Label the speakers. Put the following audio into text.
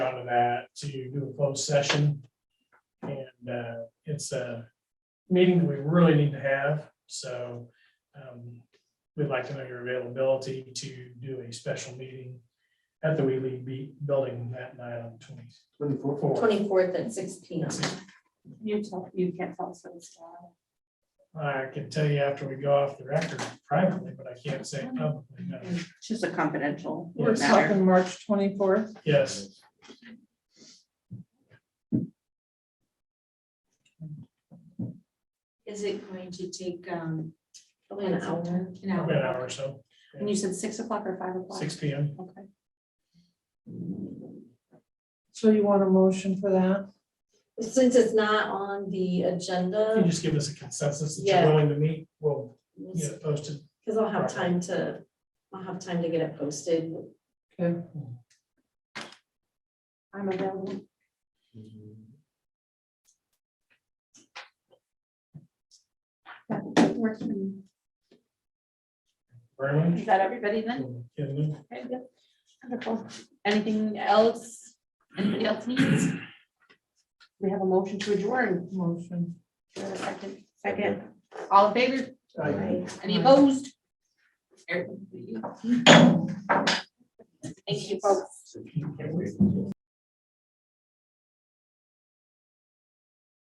Speaker 1: out of that to do a closed session. And uh, it's a meeting that we really need to have, so um, we'd like to know your availability to do a special meeting at the Wheelie Be- Building that night on twenty fourth.
Speaker 2: Twenty-fourth at six P M.
Speaker 3: You tell, you can't tell us this. uh,
Speaker 1: I can tell you after we go off the record privately, but I can't say it publicly, no.
Speaker 3: It's just a confidential
Speaker 4: We're
Speaker 3: matter.
Speaker 4: talking March twenty-fourth.
Speaker 1: Yes,
Speaker 5: Is it going to take, um,
Speaker 2: Probably
Speaker 5: an
Speaker 2: an hour.
Speaker 5: hour? An
Speaker 1: about an hour or so,
Speaker 3: And you said six o'clock or five o'clock?
Speaker 1: six P M.
Speaker 3: Okay.
Speaker 4: So you want a motion for that?
Speaker 2: Since it's not on the agenda.
Speaker 1: If
Speaker 3: Oh.
Speaker 1: you just give us a consensus that
Speaker 2: Yeah.
Speaker 1: you're willing to meet, we'll
Speaker 2: we'll
Speaker 1: get it posted.
Speaker 2: Because I'll have
Speaker 1: Right.
Speaker 2: time to, I'll have time to get it posted.
Speaker 4: Okay.
Speaker 3: I'm available. That works for me.
Speaker 1: Very much.
Speaker 3: Is that everybody then?
Speaker 1: Getting it?
Speaker 3: Okay, yep. Wonderful. Anything else? Anybody else needs? We have a motion to adjourn.
Speaker 4: Motion.
Speaker 3: Is there a Second. Second. All in favor?
Speaker 2: Right.
Speaker 3: Any opposed? Eric, you. Thank you, folks.